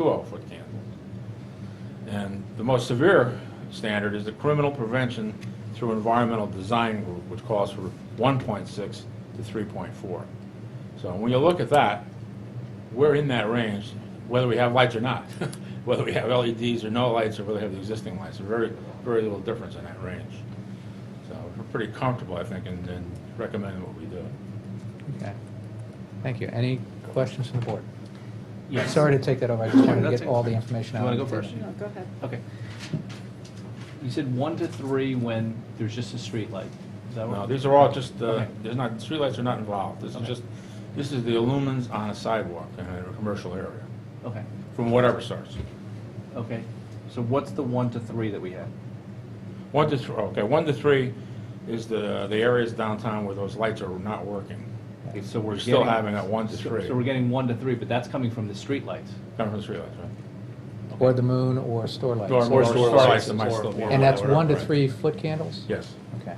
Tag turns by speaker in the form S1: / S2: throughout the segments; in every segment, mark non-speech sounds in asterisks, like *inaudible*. S1: 12-foot candles. And the most severe standard is the criminal prevention through environmental design group, which calls for 1.6 to 3.4. So when you look at that, we're in that range, whether we have lights or not, *laughs* whether we have LEDs or no lights, or whether we have the existing lights, there's very, very little difference in that range. So we're pretty comfortable, I think, in in recommending what we do.
S2: Okay. Thank you. Any questions from the board?
S3: Yes.
S2: Sorry to take that over. I just wanted to
S3: That's
S2: get
S3: it.
S2: all the information
S3: You
S2: out.
S3: wanna
S2: on
S3: go
S2: the
S3: first?
S2: table.
S4: No, go ahead.
S3: Okay. You said one to three when there's just a street light. Is that
S1: No,
S3: what?
S1: these are all just, uh,
S3: Okay.
S1: there's not, streetlights are not involved. This is
S3: Okay.
S1: just, this is the lumens on a sidewalk in a commercial area,
S3: Okay,
S1: from whatever source.
S3: okay. So what's the one to three that we had?
S1: One to, thr- okay, one to three is the, the areas downtown where those lights are not working.
S3: Okay, So we're
S1: We're still
S3: getting-
S1: having that one to
S3: so-
S1: three.
S3: So we're getting one to three, but that's coming from the street lights.
S1: Coming from the streetlights, right?
S2: Or the moon or store lights.
S1: Or more
S3: Or
S1: store
S3: lights
S1: lights that
S3: is
S1: might
S3: more
S1: still be.
S3: important.
S2: And that's
S1: on, whatever,
S2: one to
S1: right.
S2: three foot candles?
S1: Yes.
S2: Okay.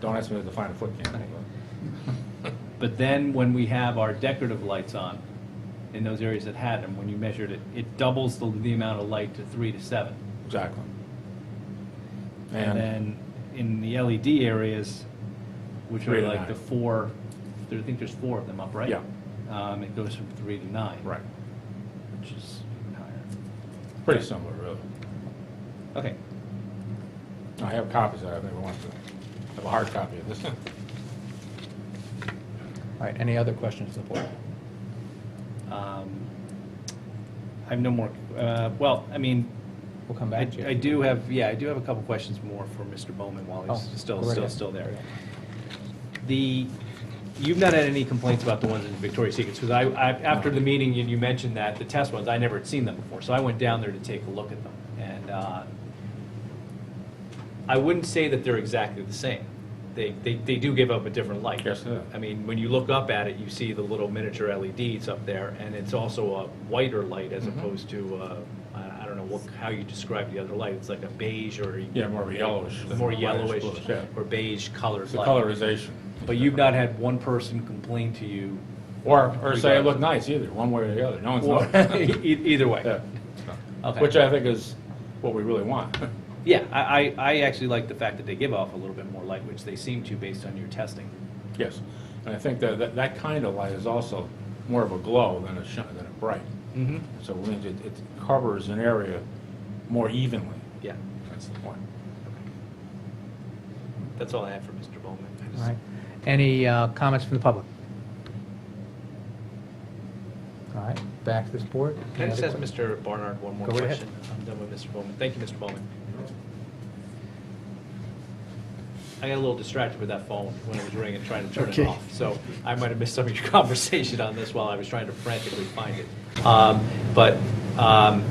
S1: Don't ask me to define a foot candle.
S3: But then when we have our decorative lights on, in those areas that had them, when you measured it, it doubles the, the amount of light to three to seven.
S1: Exactly.
S3: And
S1: And,
S3: then in the LED areas, which
S1: Three
S3: are
S1: to
S3: like
S1: nine.
S3: the four, there- I think there's four of them up, right?
S1: Yeah.
S3: Um, it goes from three to nine.
S1: right,
S3: Which is even higher.
S1: pretty similar, really.
S3: Okay,
S1: I have copies of it, I never want to, I have a hard copy of this. *laughs*
S2: All right. Any other questions from the board?
S3: um, I have no more, uh, well, I mean,
S2: We'll come
S3: I,
S2: back to you.
S3: I do have, yeah, I do have a couple questions more for Mr. Bowman while
S2: Oh,
S3: he's still,
S2: go right
S3: still,
S2: ahead.
S3: still
S2: Go
S3: there.
S2: right ahead.
S3: The, you've not had any complaints about the ones in Victoria's Secret, because I, I, after the meeting, and you mentioned that, the test ones, I never had seen them before, so I went down there to take a look at them, and, uh, I wouldn't say that they're exactly the same. They, they, they do give up a different light.
S1: Yes, they do.
S3: I mean, when you look up at it, you see the little miniature LEDs up there, and it's also a whiter light as
S1: Mhm.
S3: opposed to, uh, I I don't know what, how you describe the other light, it's like a beige or.
S1: Yeah, more of a yellowish than
S3: More
S1: a whitish
S3: yellowish
S1: bluish, yeah.
S3: or beige colored
S1: It's
S3: light.
S1: the colorization.
S3: But you've not had one person complain to you,
S1: Or, or say it looked nice either, one way or the other, no one's
S3: or,
S1: noticed.
S3: *laughs* e- either way.
S1: Yeah.
S3: Okay.
S1: Which I think is what we really want. *laughs*
S3: Yeah, I, I, I actually like the fact that they give off a little bit more light, which they seem to based on your testing.
S1: Yes, and I think that, that, that kind of light is also more of a glow than a shi, than a bright.
S3: Mm-hmm.
S1: So it means it, it covers an area more evenly,
S3: Yeah,
S1: that's the point.
S3: that's all I have for Mr. Bowman. I just-
S2: All right. Any uh, comments from the public? All right. Back to this board.
S3: Can I
S2: Any
S3: just ask
S2: other que-
S3: Mr. Barnard one more
S2: Go right ahead.
S3: question? I'm done with Mr. Bowman. Thank you, Mr. Bowman. I got a little distracted with that phone when it was ringing, trying to turn it
S2: Okay.
S3: off. So I might have missed some of your *laughs* conversation on this while I was trying to frantically find it. Um, But um,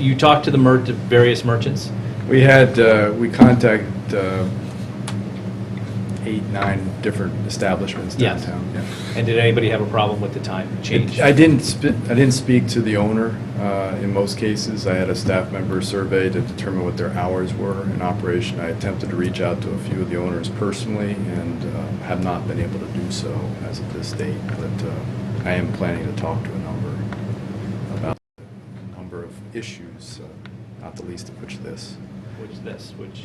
S3: you talked to the mer, to various merchants?
S5: We had, uh, we contacted uh, eight, nine different establishments
S3: Yes.
S5: downtown. yeah.
S3: And did anybody have a problem with the time change?
S5: I didn't, sp- I didn't speak to the owner uh, in most cases. I had a staff member survey to determine what their hours were in operation. I attempted to reach out to a few of the owners personally and uh, have not been able to do so as of this date, but uh, I am planning to talk to a number about a number of issues, uh, not the least of which this.
S3: which is this, which,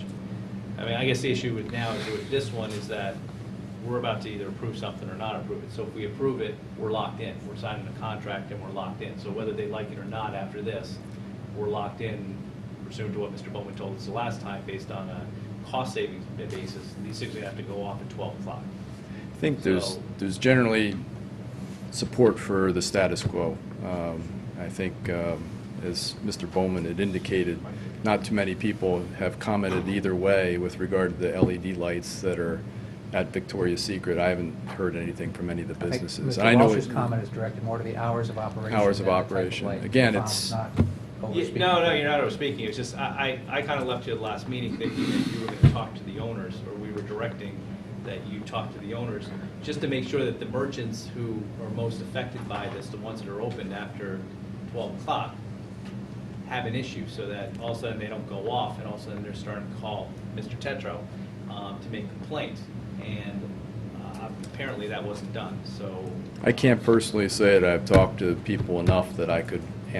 S3: I mean, I guess the issue with now is with this one is that we're about to either approve something or not approve it. So if we approve it, we're locked in. We're signing a contract and we're locked in. So whether they like it or not after this, we're locked in pursuant to what Mr. Bowman told us the last time, based on a cost savings basis. These things are gonna have to go off at twelve o'clock.
S5: I think there's,
S3: So-
S5: there's generally support for the status quo. Um, I think, um, as Mr. Bowman had indicated, not too many people have commented either way with regard to the LED lights that are at Victoria's Secret. I haven't heard anything from any of the
S2: I think
S5: businesses. I
S2: Mr.
S5: know
S2: Walsh's
S5: it-
S2: comment is directed more to the hours of operation.
S5: Hours of
S2: than the type
S5: operation.
S2: light.
S5: Again,
S2: If I'm
S5: it's-
S2: not
S3: Yeah,
S2: overspeaking.
S3: No, no, you're not overspeaking, it's just, I, I, I kind of left you at the last meeting thinking that you were going to talk to the owners, or we were directing that you talk to the owners, just to make sure that the merchants who are most affected by this, the ones that are open after twelve o'clock, have an issue, so that all of a sudden they don't go off, and all of a sudden they're starting to call Mr. Tetro um, to make complaints, and uh, apparently that wasn't done, so.
S5: I can't personally say that I've talked to people enough that I could